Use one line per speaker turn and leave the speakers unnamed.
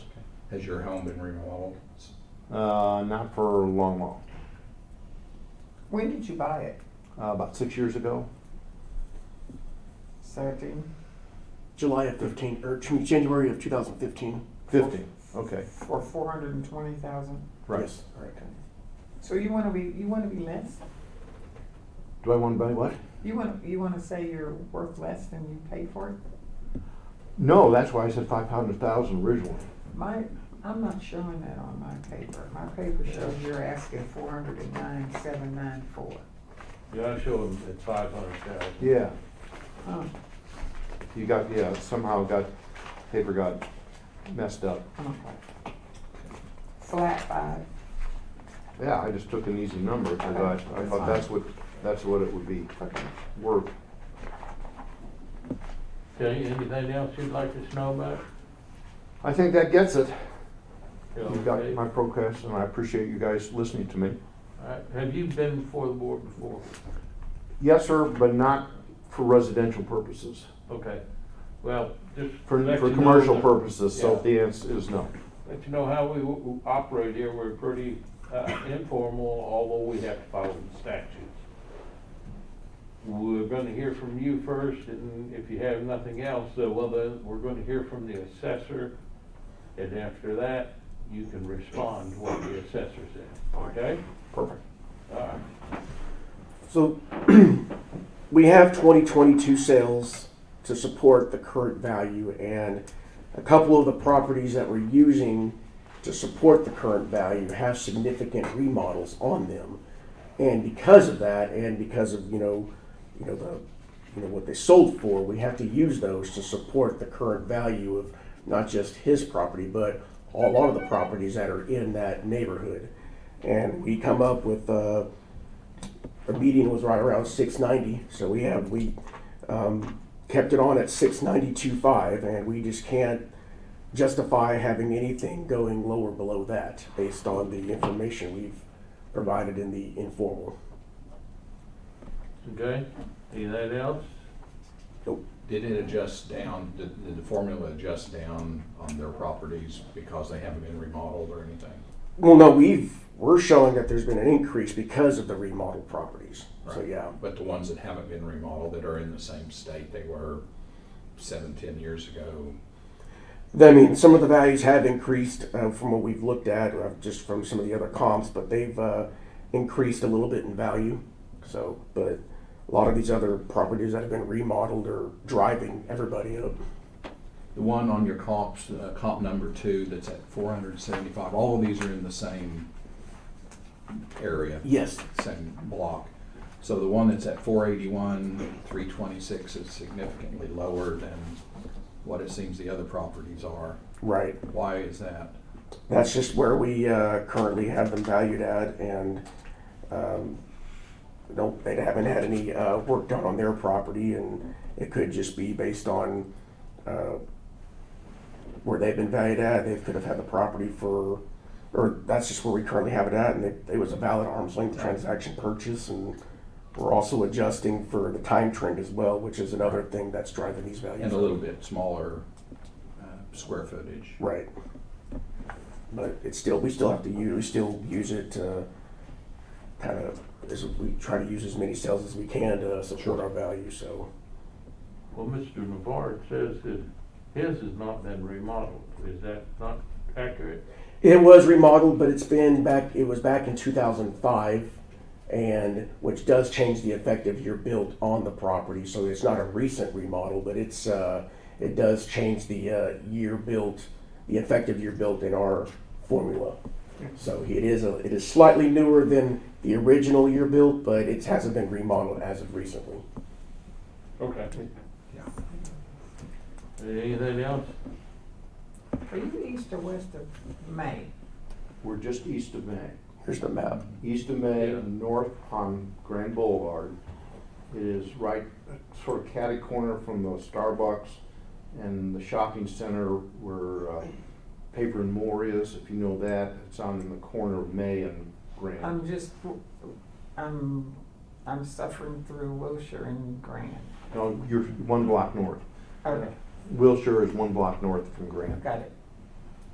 Has your home been remodeled? S-
Uh, not for long, long.
When did you buy it?
Uh, about six years ago.
Thirteen?
July of 15, or excuse me, January of 2015.
Fifteen. Okay.
For four hundred and twenty thousand?
Right.
Yes.
So you wanna be, you wanna be less?
Do I want to buy what?
You wanna, you wanna say you're worth less than you paid for it?
No, that's why I said five hundred thousand originally.
My, I'm not showing that on my paper. My paper shows you're asking four hundred and nine, seven nine four.
Yeah, I showed them at five hundred thousand.
Yeah.
Oh,
You got yeah. Somehow got paper got messed up.
okay. Flat five.
Yeah, I just took an easy number because I, I thought that's what that's what it would be
Okay.
worth.
Okay, anything else you'd like us to know about?
I think that gets it.
Yeah,
You've got
okay.
my procast, and I appreciate you guys listening to me.
All right. Have you been before the board before?
Yes, sir, but not for residential purposes.
Okay, well, just.
For,
let
for
you know
commercial
that-
purposes, so
Yeah.
the answer is no.
Let you know how we w- w- operate here, we're pretty uh, informal, although we have to follow the statutes. We're gonna hear from you first, and if you have nothing else, uh, well, then, we're gonna hear from the assessor. And after that, you can respond to what the assessor said, okay?
Perfect.
All right.
So we have 2022 sales to support the current value and a couple of the properties that we're using to support the current value have significant remodels on them. And because of that and because of, you know, you know the you know what they sold for, we have to use those to support the current value of not just his property, but a lot of the properties that are in that neighborhood. And we come up with uh, our meeting was right around six ninety, so we have, we, um, kept it on at six ninety-two five, and we just can't justify having anything going lower below that, based on the information we've provided in the informal.
Okay, anything else?
Did it adjust down, did did the formula adjust down on their properties because they haven't been remodeled or anything?
Well, no, we've, we're showing that there's been an increase because of the remodel properties, so
Right.
yeah.
But the ones that haven't been remodeled that are in the same state they were seven, ten years ago,
I mean, some of the values have increased uh, from what we've looked at, uh, just from some of the other comps, but they've uh, increased a little bit in value. So, but a lot of these other properties that have been remodeled are driving everybody up.
The one on your comps, uh, comp number two, that's at four hundred and seventy-five, all of these are in the same area,
Yes.
same block. So the one that's at four eighty-one, three twenty-six is significantly lower than what it seems the other properties are.
Right.
Why is that?
That's just where we uh, currently have them valued at, and um, don't, they haven't had any uh, work done on their property, and it could just be based on uh, where they've been valued at. They could have had the property for, or that's just where we currently have it at, and it, it was a valid arm's length transaction purchase, and we're also adjusting for the time trend as well, which is another thing that's driving these values.
And a
up.
little bit smaller, uh, square footage.
Right. But it's still, we still have to use, we still use it to kind of, as we try to use as many cells as we can to support our value, so.
Well, Mr. Navarre says that his has not been remodeled, is that not accurate?
It was remodeled, but it's been back, it was back in two thousand five, and, which does change the effective year built on the property, so it's not a recent remodel, but it's, uh, it does change the, uh, year built, the effective year built in our formula. So it is a, it is slightly newer than the original year built, but it hasn't been remodeled as of recently.
Okay.
Yeah.
Anything else?
Are you east or west of May?
We're just east of May.
Here's the map.
East of May,
Yeah.
north on Grand Boulevard. It is right, sort of catty corner from the Starbucks and the shopping center where uh, Paper and More is, if you know that. It's on the corner of May and Grand.
I'm just, I'm, I'm suffering through Wilshire and Grand.
No, you're one block north.
Okay,
Wilshire is one block north from Grand.
got it.